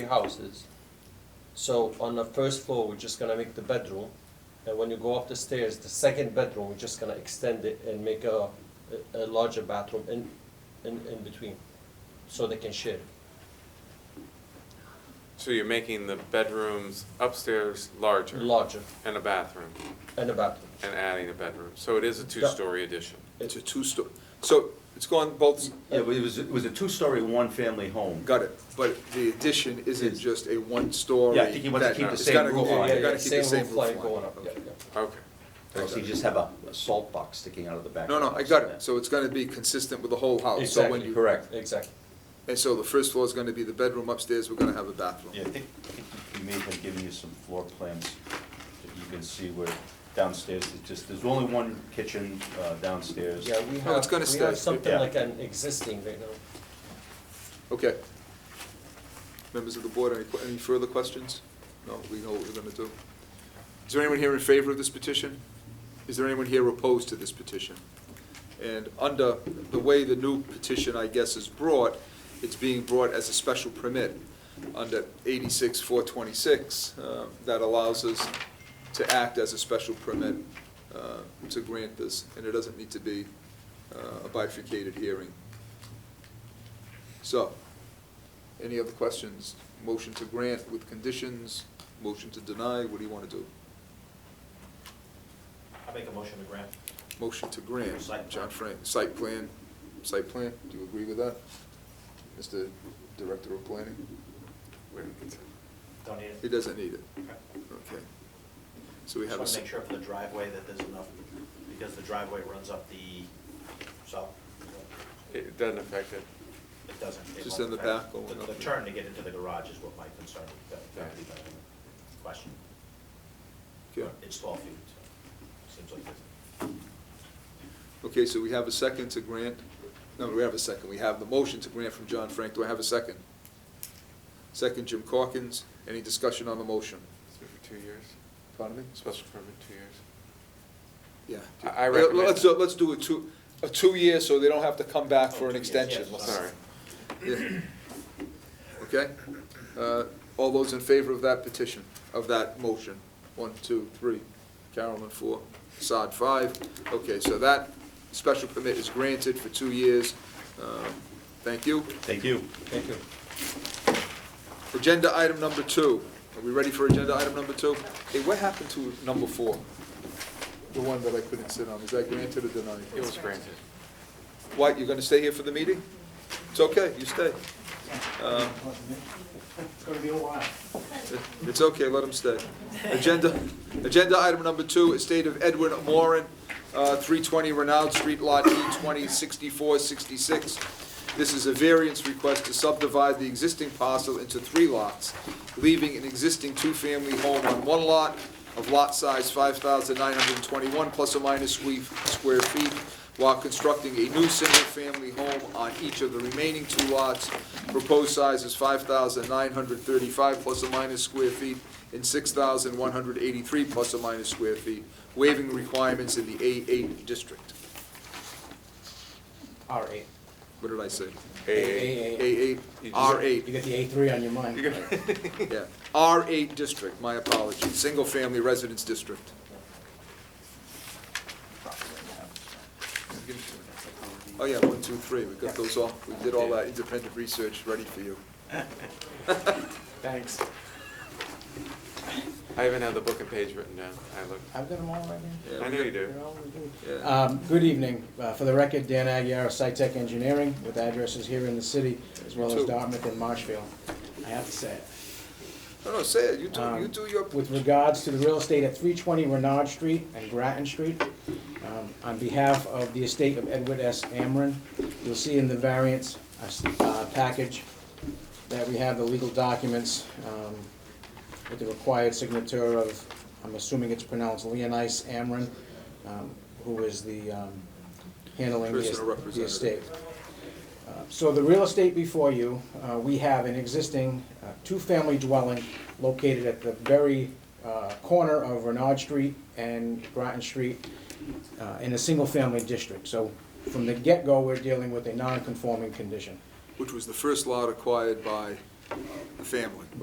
three houses. So on the first floor, we're just gonna make the bedroom, and when you go up the stairs, the second bedroom, we're just gonna extend it and make a, a a larger bathroom in, in, in between, so they can share. So you're making the bedrooms upstairs larger? Larger, And a bathroom, and a bathroom. and adding a bedroom. So it is a two-story addition. It's a two-story, so it's gone both, Yeah, but it was, it was a two-story, one-family home. got it, but the addition isn't just a one-story. Yeah, I think he wants to that- keep the it's same gotta roof go- line. you Yeah, gotta keep the same roof line roof going line. up, yeah, yeah. Okay. Or else you just have a a salt box sticking out of the back. No, of no, the I house. got Yeah. it, so it's gonna be consistent with the whole house, Oh, so when Exactly. you, Correct. Exactly. and so the first floor is gonna be the bedroom upstairs, we're gonna have a bathroom. Yeah, I think, I think we may have been giving you some floor plans that you can see where downstairs, it's just, there's only one kitchen uh, downstairs. Yeah, we No, it's have, gonna we have stay. something Yeah. like an existing right now. Okay. Members of the board, any, que- any further questions? No, we know what we're gonna do. Is there anyone here in favor of this petition? Is there anyone here opposed to this petition? And under the way the new petition, I guess, is brought, it's being brought as a special permit under eighty-six, four twenty-six, uh, that allows us to act as a special permit uh, to grant this, and it doesn't need to be uh, a bifurcated hearing. So, any other questions? Motion to grant with conditions, motion to deny, what do you want to do? I make a motion to grant. Motion to grant, Site plan. John Frank, site plan, site plan, do you agree with that? Mr. Director of Planning? Wait a minute. Don't need He it. doesn't need it, Okay. okay. So we Just have a. want to s- make sure for the driveway that there's enough, because the driveway runs up the, so It doesn't affect it. it doesn't. it Just won't in the affect- back going the- up The there. turn to get into the garage is what my concern, that, that would be my question. Okay. It's twelve feet, so seems like it's Okay, so we have a second to grant, no, we have a second, we have the motion to grant from John Frank, do I have a second? Second, Jim Corkins, any discussion on the motion? It's been for two years. Pardon me? Special permit, two years. Yeah. I- I Let- recommend Let's, that. let's do a two, a two-year, so they don't have to come back for an Oh, two years, extension. yes. Sorry. Yeah. Okay? Uh, All those in favor of that petition, of that motion? One, two, three. Carolyn, four. Sod, five. Okay, so that special permit is granted for two years. Um, Thank you. Thank you. Thank you. Agenda item number two. Are we ready for agenda item number two? Hey, what happened to number four? The one that I couldn't sit on, is that granted or denied? It was granted. What, you're gonna stay here for the meeting? It's okay, you stay. Um, gonna be a while. It's okay, let him stay. Agenda, agenda item number two, estate of Edwin Moran, uh, 320 Renaud Street, Lot E E206466. This is a variance request to subdivide the existing parcel into three lots, leaving an existing two-family home on one lot of lot size 5,921 plus or minus sque- square feet, while constructing a new single-family home on each of the remaining two lots. Proposed size is 5,935 plus or minus square feet and 6,183 plus or minus square feet, waiving requirements in the A8 district. R eight. What did I say? A- A8, R8, You got the A three on your mind. yeah. R8 district, my apologies, single-family residence district. Oh, yeah, one, two, three, we got those all, we did all that independent research ready for you. Thanks. I even have the book and page written down. I looked. I've got them all right I know you do. here. They're all good. Yeah. Um, Good evening. Uh, For the record, Dan Aguirre, SciTech Engineering, with addresses here in the city, as well as Two. Dartmouth and Marshfield. I have to say it. No, no, say it, you do, Um, you do your, With regards to the real estate at 320 Renard Street and Grattan Street, um, on behalf of the estate of Edward S. Amron, you'll see in the variance uh, package that we have the legal documents um, with the required signature of, I'm assuming it's pronounced Leonice Amron, um, who is the, um, handling the Personal es- the representative. estate. Uh, So the real estate before you, uh, we have an existing uh, two-family dwelling located at the very uh, corner of Renard Street and Groton Street uh, in a single-family district. So from the get-go, we're dealing with a non-conforming condition. which was the first lot acquired by the family.